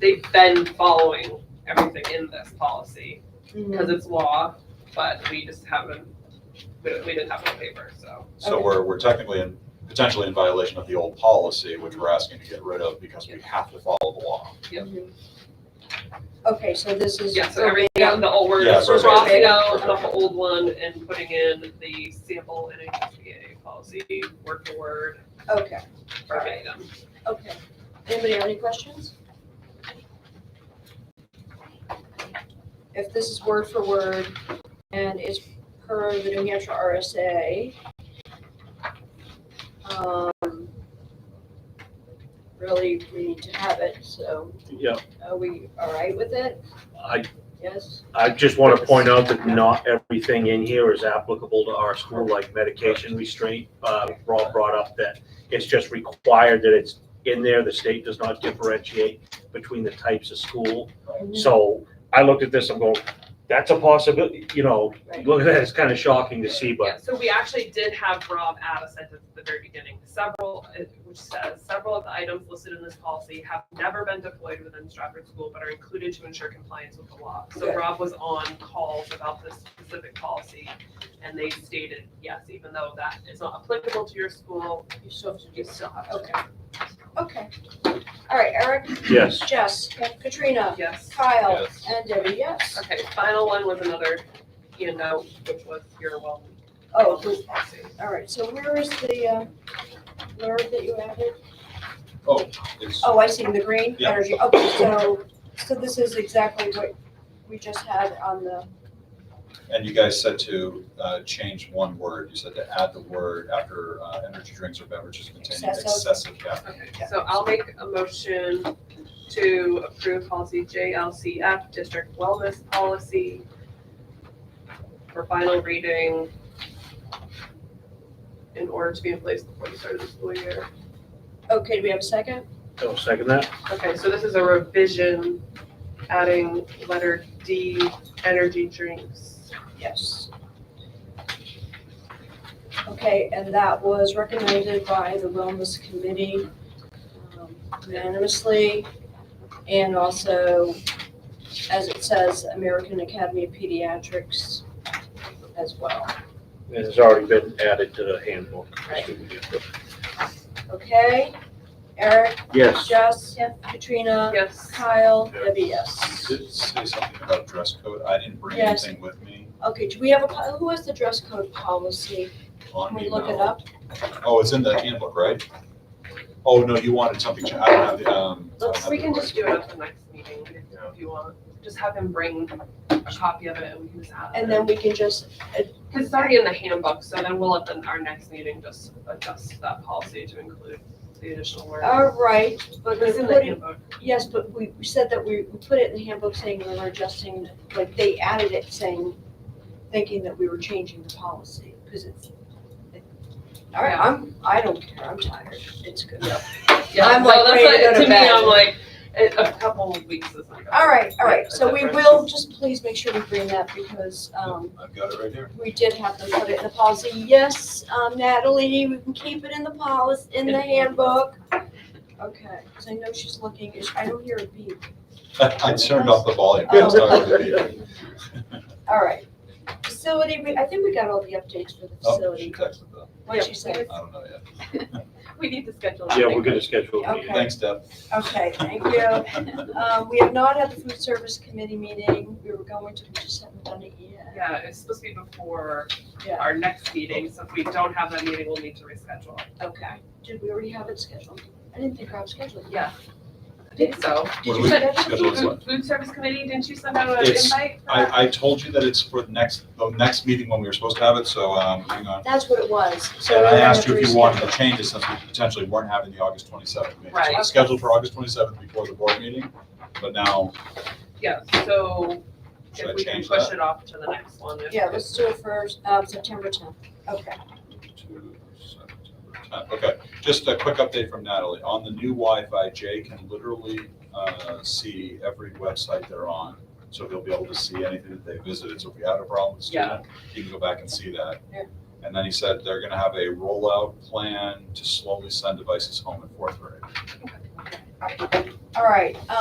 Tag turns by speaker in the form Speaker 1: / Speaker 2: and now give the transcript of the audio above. Speaker 1: they've been following everything in this policy
Speaker 2: Mm-hmm.
Speaker 1: because it's law, but we just haven't, we we didn't have it on paper, so.
Speaker 3: So
Speaker 2: Okay.
Speaker 3: we're, we're technically in, potentially in violation of the old policy, which we're asking to get rid of because we have to follow the law.
Speaker 2: Okay, so this is.
Speaker 1: Yeah, so everything, out- the old, we're
Speaker 3: Yeah,
Speaker 1: just we're
Speaker 3: verbatim.
Speaker 1: crossing out the
Speaker 3: Verbatim.
Speaker 1: old one and putting in the sample NHSBA policy, word for word,
Speaker 2: Okay,
Speaker 1: verbatim.
Speaker 2: okay. Anybody have any questions? If this is word for word and is per the New Hampshire RSA. Um. Really, we need to have it, so
Speaker 4: Yeah,
Speaker 2: are we all right with it?
Speaker 4: I,
Speaker 2: Yes?
Speaker 4: I just want to point out that not everything in here is applicable to our school, like medication restraint. Uh, Rob brought up that it's just required that it's in there. The state does not differentiate between the types of school. So I looked at this, I'm going, that's a possibility, you know,
Speaker 2: Right.
Speaker 4: look at that, it's kind of shocking to see,
Speaker 1: Yeah,
Speaker 4: but
Speaker 1: so we actually did have Rob add a sentence at the very beginning, several, uh, which says, several of the items listed in this policy have never been deployed within Stratford School, but are included to ensure compliance with the law. So
Speaker 2: Good.
Speaker 1: Rob was on calls about this specific policy, and they stated, yes, even though that is not applicable to your school,
Speaker 2: You still have to do
Speaker 1: you still have to.
Speaker 2: Okay. Okay. All right, Eric,
Speaker 4: yes.
Speaker 2: Jess, Katrina,
Speaker 1: Yes.
Speaker 2: Kyle,
Speaker 3: Yes.
Speaker 2: and Debbie, yes.
Speaker 1: Okay, final one was another, you know, which was your well.
Speaker 2: Oh, good.
Speaker 1: policy.
Speaker 2: all right, so where is the, uh, blurb that you added?
Speaker 3: Oh, it's,
Speaker 2: Oh, I see, the green
Speaker 3: Yeah.
Speaker 2: energy, okay, so, so this is exactly what we just had on the,
Speaker 3: and you guys said to, uh, change one word. You said to add the word after, uh, energy drinks or beverages containing
Speaker 2: Excessive.
Speaker 3: excessive caffeine.
Speaker 1: Okay, so I'll make a motion to approve policy JLCF, district wellness policy for final reading in order to be in place before the start of the school year.
Speaker 2: okay, do we have a second?
Speaker 4: I'll second that.
Speaker 1: Okay, so this is a revision, adding letter D, energy drinks.
Speaker 2: Yes. Okay, and that was recommended by the Wellness Committee um, unanimously. And also, as it says, American Academy of Pediatrics as well.
Speaker 4: It has already been added to the handbook.
Speaker 2: Okay, Eric,
Speaker 4: Yes.
Speaker 2: Jess, Katrina,
Speaker 1: Yes.
Speaker 2: Kyle,
Speaker 3: Yeah.
Speaker 2: Debbie, yes.
Speaker 3: Did it say something about dress code? I didn't bring
Speaker 2: Yes.
Speaker 3: anything with me
Speaker 2: Okay, do we have a, po- who has the dress code policy?
Speaker 3: on
Speaker 2: Can
Speaker 3: me.
Speaker 2: we look it
Speaker 3: no.
Speaker 2: up?
Speaker 3: Oh, it's in the handbook, right? Oh, no, you wanted something, cha- I don't have the, um. I don't have
Speaker 1: We
Speaker 3: the
Speaker 1: can
Speaker 3: word.
Speaker 1: just do it at the next meeting if you want. Just have him bring a copy of it and we can just add it.
Speaker 2: And then we can just
Speaker 1: Because it's already in the handbook, so then we'll at the, our next meeting just adjust that policy to include the additional words.
Speaker 2: All right, Oh, but we
Speaker 1: It's in the
Speaker 2: put it,
Speaker 1: handbook.
Speaker 2: yes, but we we said that we we put it in the handbook saying we were adjusting, like they added it saying, thinking that we were changing the policy, because it's. All right, I'm, I don't care, I'm tired, it's good.
Speaker 1: Yeah,
Speaker 2: I'm
Speaker 1: no,
Speaker 2: like
Speaker 1: that's
Speaker 2: ready to
Speaker 1: like-
Speaker 2: go to
Speaker 1: me,
Speaker 2: bed.
Speaker 1: I'm like, it- a couple of weeks is not.
Speaker 2: All right, all right, so we will just please make sure we bring that because um
Speaker 3: I've got it right here.
Speaker 2: we did have them put it in the policy. Yes, um Natalie, we can keep it in the policy, in the handbook. Okay, because I know she's looking, I don't hear a beep.
Speaker 3: I turned off the volume. I
Speaker 2: Oh.
Speaker 3: was talking to you.
Speaker 2: All right. Facility, we, I think we got all the updates for the
Speaker 3: Oh, she
Speaker 2: facility.
Speaker 3: texted though.
Speaker 2: What'd she say?
Speaker 3: I don't know yet.
Speaker 1: We need to schedule.
Speaker 4: Yeah, we're gonna schedule a meeting.
Speaker 2: Okay.
Speaker 3: Thanks, Deb.
Speaker 2: Okay, thank you. Um, we have not had the food service committee meeting. We were going to, we just haven't done it yet.
Speaker 1: Yeah, it's supposed to be before
Speaker 2: Yeah,
Speaker 1: our next meeting, so if we don't have that meeting, we'll need to reschedule.
Speaker 2: okay. Did we already have it scheduled? I didn't think Rob scheduled it.
Speaker 1: Yeah. I think so.
Speaker 2: Did
Speaker 3: What
Speaker 2: you
Speaker 3: do we-
Speaker 2: send it?
Speaker 3: schedule is
Speaker 1: Food
Speaker 3: what?
Speaker 1: food service committee, didn't you send out an
Speaker 3: It's-
Speaker 1: invite? for that?
Speaker 3: I, I told you that it's for the next, the next meeting when we were supposed to have it, so, um, hang on.
Speaker 2: That's what it was. So
Speaker 3: And
Speaker 2: we're
Speaker 3: I
Speaker 2: gonna
Speaker 3: asked
Speaker 2: have
Speaker 3: you
Speaker 2: to
Speaker 3: if you wanted
Speaker 2: reschedule.
Speaker 3: to change it since we potentially weren't having the August twenty-seventh meeting. So
Speaker 1: Right.
Speaker 3: It's scheduled for August twenty-seventh before the board meeting, but now,
Speaker 1: Yeah, so
Speaker 3: Should I
Speaker 1: if we can
Speaker 3: change
Speaker 1: push
Speaker 3: that?
Speaker 1: it off to the next one. if-
Speaker 2: Yeah, let's do it for, um, September tenth. Okay.
Speaker 3: to September 10th. Okay, just a quick update from Natalie. On the new Wi-Fi, Jay can literally uh, see every website they're on. So he'll be able to see anything that they visited. So if we had a problem with a student, he can go back and see that.
Speaker 2: Yeah.
Speaker 3: And then he said they're gonna have a rollout plan to slowly send devices home in fourth grade.
Speaker 2: All right,